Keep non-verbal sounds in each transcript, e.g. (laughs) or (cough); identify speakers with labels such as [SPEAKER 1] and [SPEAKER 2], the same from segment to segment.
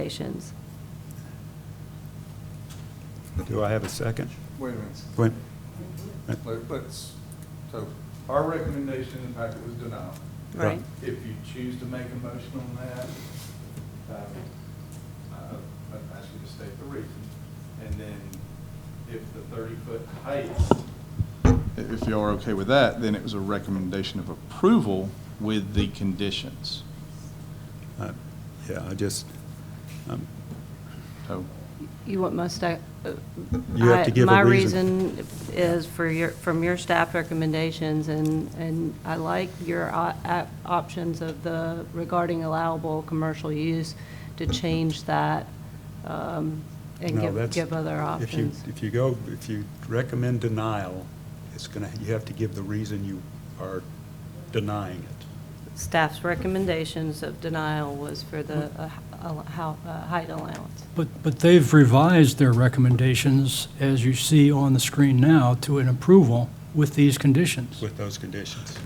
[SPEAKER 1] recommendations.
[SPEAKER 2] Do I have a second? uh,
[SPEAKER 3] Wait a minute,
[SPEAKER 2] Go ahead.
[SPEAKER 3] Let- let's, so our recommendation in the packet was denial.
[SPEAKER 2] Right.
[SPEAKER 3] If you choose to make a motion on that, um, I- I'd ask you to state the reason. And then if the thirty-foot height, if y'all are okay with that, then it was a recommendation of approval with the conditions.
[SPEAKER 2] Uh, Yeah, I just, um,
[SPEAKER 3] So
[SPEAKER 1] You want most, I- uh,
[SPEAKER 2] You have to
[SPEAKER 1] I-
[SPEAKER 2] give a
[SPEAKER 1] My
[SPEAKER 2] reason.
[SPEAKER 1] reason is for your, from your staff recommendations, and, and I like your o- op- options of the regarding allowable commercial use to change that um, and
[SPEAKER 2] no,
[SPEAKER 1] give,
[SPEAKER 2] that's-
[SPEAKER 1] give other
[SPEAKER 2] if you-
[SPEAKER 1] options.
[SPEAKER 2] If you go, if you recommend denial, it's gonna, you have to give the reason you are denying it.
[SPEAKER 1] Staff's recommendations of denial was for the uh, al- how- uh, height allowance.
[SPEAKER 4] But, but they've revised their recommendations, as you see on the screen now, to an approval with these conditions.
[SPEAKER 2] With those conditions.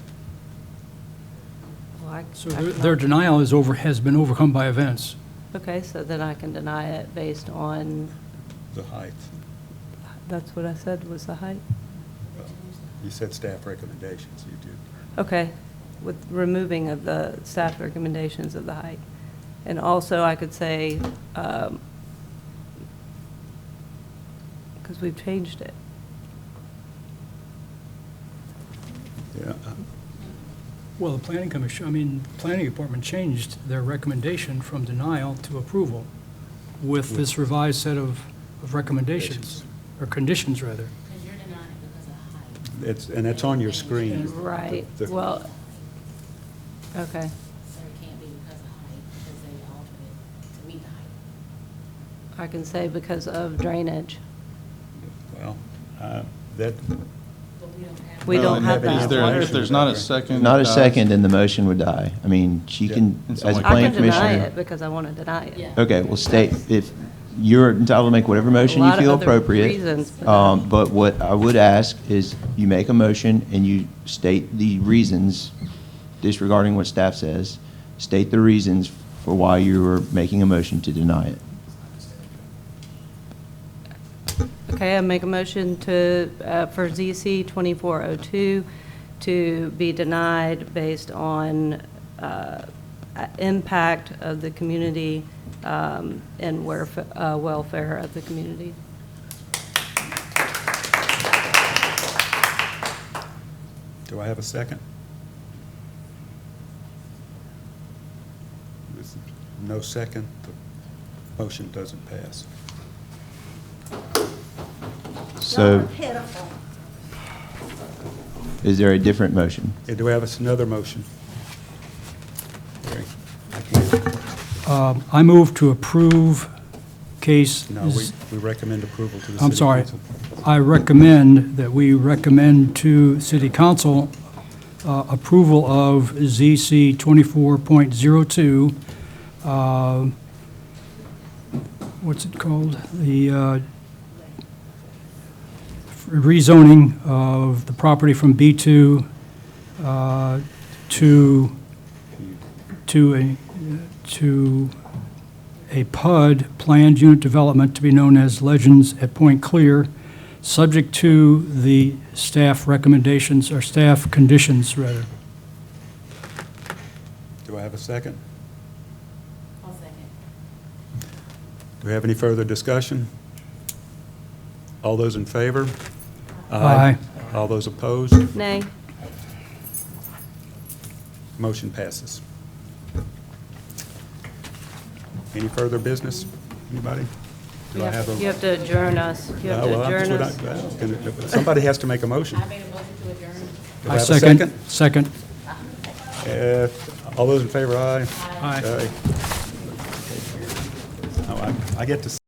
[SPEAKER 1] Well, I-
[SPEAKER 4] So
[SPEAKER 1] I
[SPEAKER 4] their-
[SPEAKER 1] can-
[SPEAKER 4] their denial is over, has been overcome by events.
[SPEAKER 1] Okay, so then I can deny it based on
[SPEAKER 2] The height.
[SPEAKER 1] That's what I said, was the height.
[SPEAKER 2] You said staff recommendations, you did.
[SPEAKER 1] Okay, with removing of the staff recommendations of the height. And also, I could say, um, because we've changed it.
[SPEAKER 2] Yeah. uh,
[SPEAKER 4] Well, the planning commission, I mean, planning department changed their recommendation from denial to approval with this revised set of, of recommendations, or conditions, rather.
[SPEAKER 5] Because you're denying it because of height.
[SPEAKER 2] It's, and it's on your screen.
[SPEAKER 1] Right,
[SPEAKER 2] The- the-
[SPEAKER 1] well, okay,
[SPEAKER 5] So it can't be because of height, because they altered it to meet the height.
[SPEAKER 1] I can say because of drainage.
[SPEAKER 2] Well, uh, that,
[SPEAKER 5] But we don't have.
[SPEAKER 1] We
[SPEAKER 3] No,
[SPEAKER 1] don't
[SPEAKER 3] and
[SPEAKER 1] have
[SPEAKER 2] that
[SPEAKER 3] uh, Is
[SPEAKER 1] that.
[SPEAKER 2] is
[SPEAKER 3] there,
[SPEAKER 2] water.
[SPEAKER 3] if there's not a second.
[SPEAKER 6] Not a
[SPEAKER 3] uh,
[SPEAKER 6] second, then the motion would die. I mean, she
[SPEAKER 2] Yeah.
[SPEAKER 6] can,
[SPEAKER 3] It's
[SPEAKER 6] as
[SPEAKER 3] only-
[SPEAKER 6] a
[SPEAKER 3] the
[SPEAKER 1] I
[SPEAKER 6] planning
[SPEAKER 1] can
[SPEAKER 6] commissioner.
[SPEAKER 1] deny it because I want to deny it.
[SPEAKER 5] Yeah.
[SPEAKER 6] Okay, well, state, if, you're entitled to make whatever motion
[SPEAKER 1] lot
[SPEAKER 6] you
[SPEAKER 1] of
[SPEAKER 6] feel
[SPEAKER 1] other
[SPEAKER 6] appropriate.
[SPEAKER 1] reasons for that.
[SPEAKER 6] Um, but what I would ask is you make a motion and you state the reasons disregarding what staff says. State the reasons for why you are making a motion to deny it.
[SPEAKER 1] Okay, I make a motion to, uh, for ZC 2402 to be denied based on uh, uh, impact of the community um, and waref- uh, welfare of the community.
[SPEAKER 2] do I have a second? With No second, the motion doesn't pass.
[SPEAKER 6] So. Is there a different motion?
[SPEAKER 2] Okay, do we have us another motion? Gary, I can't-
[SPEAKER 4] Um, I move to approve case
[SPEAKER 2] No, we, we recommend approval to the
[SPEAKER 4] I'm
[SPEAKER 2] city
[SPEAKER 4] sorry.
[SPEAKER 2] council.
[SPEAKER 4] I recommend that we recommend to City Council uh, approval of ZC 24.02. uh, What's it called? The uh, rezoning of the property from B2 uh, to, to a, to a PUD, Planned Unit Development, to be known as Legends at Point Clear, subject to the staff recommendations, or staff conditions, rather.
[SPEAKER 2] Do I have a second?
[SPEAKER 5] One second.
[SPEAKER 2] Do we have any further discussion? All those in favor?
[SPEAKER 4] Aye.
[SPEAKER 2] All those opposed?
[SPEAKER 1] Nay?
[SPEAKER 2] Motion passes. Any further business? Anybody? Do I have a?
[SPEAKER 1] You have to adjourn us. You have
[SPEAKER 2] Oh, well,
[SPEAKER 1] to
[SPEAKER 2] I'm just-
[SPEAKER 1] adjourn us.
[SPEAKER 2] well, can- Somebody has to make a
[SPEAKER 1] (laughs)
[SPEAKER 2] motion.
[SPEAKER 5] I made a motion to adjourn.
[SPEAKER 2] Do I have a
[SPEAKER 4] Second.
[SPEAKER 2] Uh, All those in favor, aye.
[SPEAKER 4] Aye.
[SPEAKER 2] Aye. Oh, I- I get to